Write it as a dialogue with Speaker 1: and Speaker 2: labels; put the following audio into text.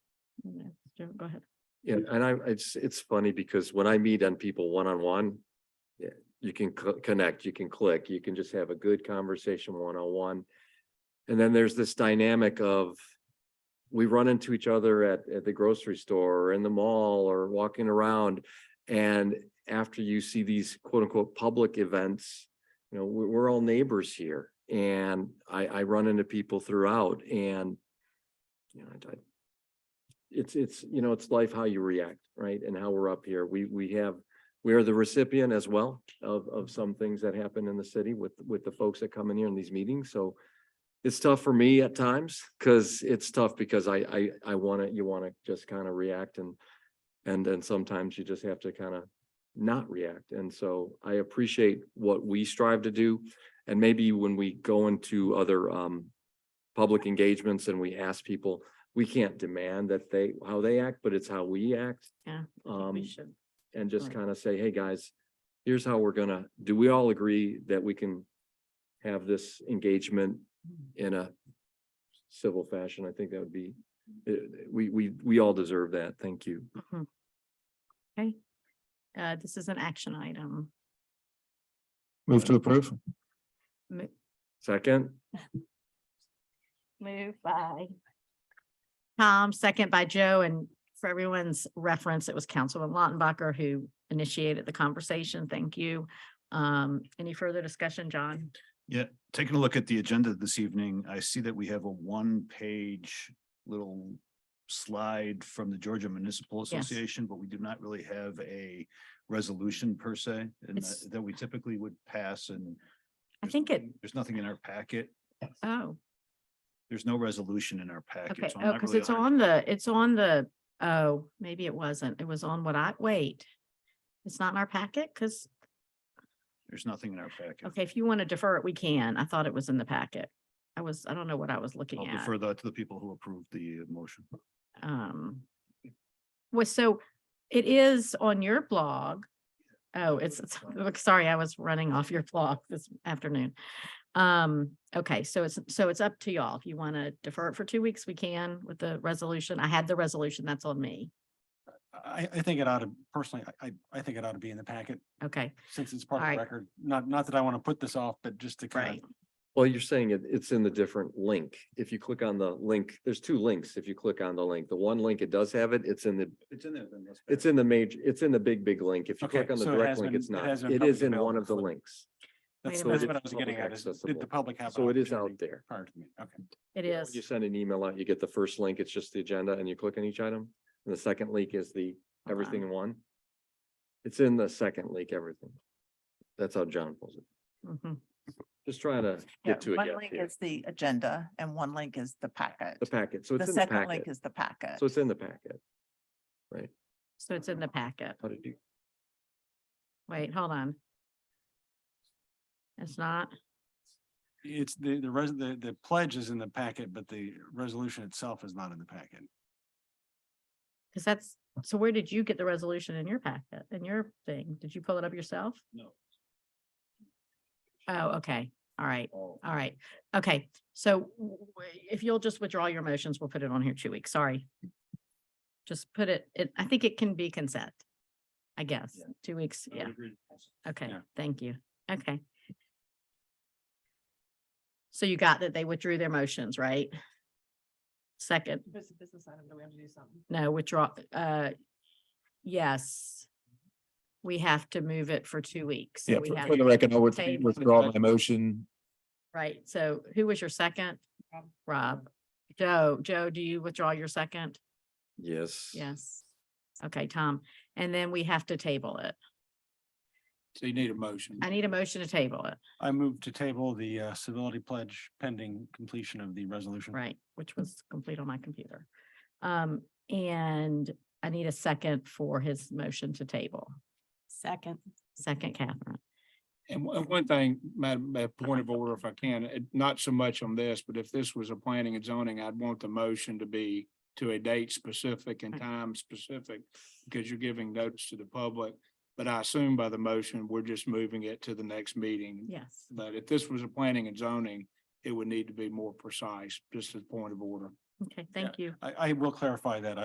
Speaker 1: Go ahead.
Speaker 2: And, and I, it's, it's funny because when I meet on people one-on-one, yeah, you can cl- connect, you can click, you can just have a good conversation one-on-one. And then there's this dynamic of we run into each other at, at the grocery store or in the mall or walking around. And after you see these quote-unquote public events, you know, we're, we're all neighbors here. And I, I run into people throughout and you know, I, I- it's, it's, you know, it's life, how you react, right? And how we're up here. We, we have, we are the recipient as well of, of some things that happen in the city with, with the folks that come in here in these meetings. So it's tough for me at times because it's tough because I, I, I want to, you want to just kind of react and, and then sometimes you just have to kind of not react. And so I appreciate what we strive to do. And maybe when we go into other, um, public engagements and we ask people, we can't demand that they, how they act, but it's how we act.
Speaker 1: Yeah,
Speaker 2: Um,
Speaker 1: We should.
Speaker 2: and just
Speaker 1: Right.
Speaker 2: kind of say, hey, guys, here's how we're gonna, do we all agree that we can have this engagement in a civil fashion? I think that would be, uh, we, we, we all deserve that. Thank you.
Speaker 1: Mhm. Okay. Uh, this is an action item.
Speaker 3: Move to approve.
Speaker 1: Mo-
Speaker 2: Second,
Speaker 1: Move by. Tom, second by Joe, and for everyone's reference, it was Councilman Lautenbacher who initiated the conversation. Thank you. Um, any further discussion, John?
Speaker 3: Taking a look at the agenda this evening, I see that we have a one-page little slide from the Georgia Municipal
Speaker 1: Yes.
Speaker 3: Association, but we do not really have a resolution per se, and
Speaker 1: It's-
Speaker 3: that that we typically would pass and
Speaker 1: I
Speaker 3: there's
Speaker 1: think it-
Speaker 3: nothing- There's nothing in our packet.
Speaker 1: Oh,
Speaker 3: There's no resolution in our packet.
Speaker 1: okay.
Speaker 3: so I'm
Speaker 1: Oh,
Speaker 3: not
Speaker 1: because
Speaker 3: really
Speaker 1: it's
Speaker 3: hun-
Speaker 1: on the, it's on the, oh, maybe it wasn't. It was on what I, wait. It's not in our packet because,
Speaker 3: There's nothing in our packet.
Speaker 1: okay, if you want to defer it, we can. I thought it was in the packet. I was, I don't know what I was looking
Speaker 3: I'll
Speaker 1: at.
Speaker 3: defer that to the people who approved the motion.
Speaker 1: um was so it is on your blog. Oh, it's, it's, look, sorry, I was running off your blog this afternoon. Um, okay, so it's, so it's up to y'all. If you want to defer it for two weeks, we can with the resolution. I had the resolution, that's on me.
Speaker 4: I, I think it ought to, personally, I, I- I think it ought to be in the packet
Speaker 1: Okay,
Speaker 4: since it's part of
Speaker 1: Alright.
Speaker 4: the record. Not, not that I want to put this off, but just to kind
Speaker 1: right.
Speaker 4: of,
Speaker 2: well, you're saying it, it's in the different link. If you click on the link, there's two links. If you click on the link, the one link, it does have it. It's in the,
Speaker 3: It's in there then.
Speaker 2: it's in the major, it's in the big, big link. If you
Speaker 4: Okay,
Speaker 2: click on the
Speaker 4: so it
Speaker 2: direct
Speaker 4: has
Speaker 2: link,
Speaker 4: been-
Speaker 2: it's
Speaker 4: it
Speaker 2: not.
Speaker 4: has been
Speaker 2: It is
Speaker 4: publicly
Speaker 2: in one of the
Speaker 4: available.
Speaker 2: links.
Speaker 4: that's,
Speaker 1: Wait a
Speaker 4: that's
Speaker 1: minute.
Speaker 4: what I was getting at is, did
Speaker 2: Accessible.
Speaker 4: the public have? an
Speaker 2: So it is out
Speaker 4: opportunity
Speaker 2: there.
Speaker 4: Prior to me, okay.
Speaker 1: It
Speaker 2: Yeah, when You
Speaker 1: is.
Speaker 2: send an email out, you get the first link, it's just the agenda and you click on each item. And the second link is the
Speaker 1: Hold
Speaker 2: everything
Speaker 1: on.
Speaker 2: in one. It's in the second link, everything. That's how John pulls it.
Speaker 1: Mhm.
Speaker 2: Just trying to
Speaker 5: Yeah,
Speaker 2: get to it.
Speaker 5: one
Speaker 2: yes,
Speaker 5: link
Speaker 2: here.
Speaker 5: is the agenda and one link is the packet.
Speaker 2: The packet, so
Speaker 5: The
Speaker 2: it's in the
Speaker 5: second link
Speaker 2: packet.
Speaker 5: is the packet.
Speaker 2: So it's in the packet.
Speaker 1: So it's in the packet.
Speaker 2: How did you?
Speaker 1: Wait, hold on. It's not,
Speaker 4: It's the, the res, the, the pledge is in the packet, but the resolution itself is not in the packet.
Speaker 1: because that's, so where did you get the resolution in your packet, in your thing? Did you pull it up yourself?
Speaker 3: No.
Speaker 1: Oh, okay. All right.
Speaker 3: Oh.
Speaker 1: All right. Okay. So w- w- if you'll just withdraw your motions, we'll put it on here two weeks. Sorry. Just put it, it, I think it can be consent. I guess,
Speaker 3: Yeah.
Speaker 1: two weeks. Yeah. Okay.
Speaker 4: Yeah.
Speaker 1: Thank you. Okay. So you got that they withdrew their motions, right? Second,
Speaker 5: business item, do we have to do something?
Speaker 1: no, withdraw, uh, yes. We have to move it for two weeks. so
Speaker 6: Yeah,
Speaker 1: we
Speaker 6: for
Speaker 1: have-
Speaker 6: for the record, I would
Speaker 1: Same.
Speaker 6: withdraw my motion.
Speaker 1: Right, so who was your second? Rob. Joe, Joe, do you withdraw your second?
Speaker 2: Yes.
Speaker 1: Yes. Okay, Tom, and then we have to table it.
Speaker 4: So you need a motion.
Speaker 1: I need a motion to table it,
Speaker 4: I move to table the uh, civility pledge pending completion of the resolution.
Speaker 1: right, which was complete on my computer. Um, and I need a second for his motion to table.
Speaker 5: Second.
Speaker 1: Second, Catherine.
Speaker 7: And one- and one thing, Madam, a point of order if I can, eh, not so much on this, but if this was a planning and zoning, I'd want the motion to be to a date specific and
Speaker 1: Right.
Speaker 7: time specific, because you're giving notice to the public. But I assume by the motion, we're just moving it to the next meeting.
Speaker 1: Yes.
Speaker 7: But if this was a planning and zoning, it would need to be more precise, just as a point of order.
Speaker 1: Okay, thank you.
Speaker 4: I, I will clarify that.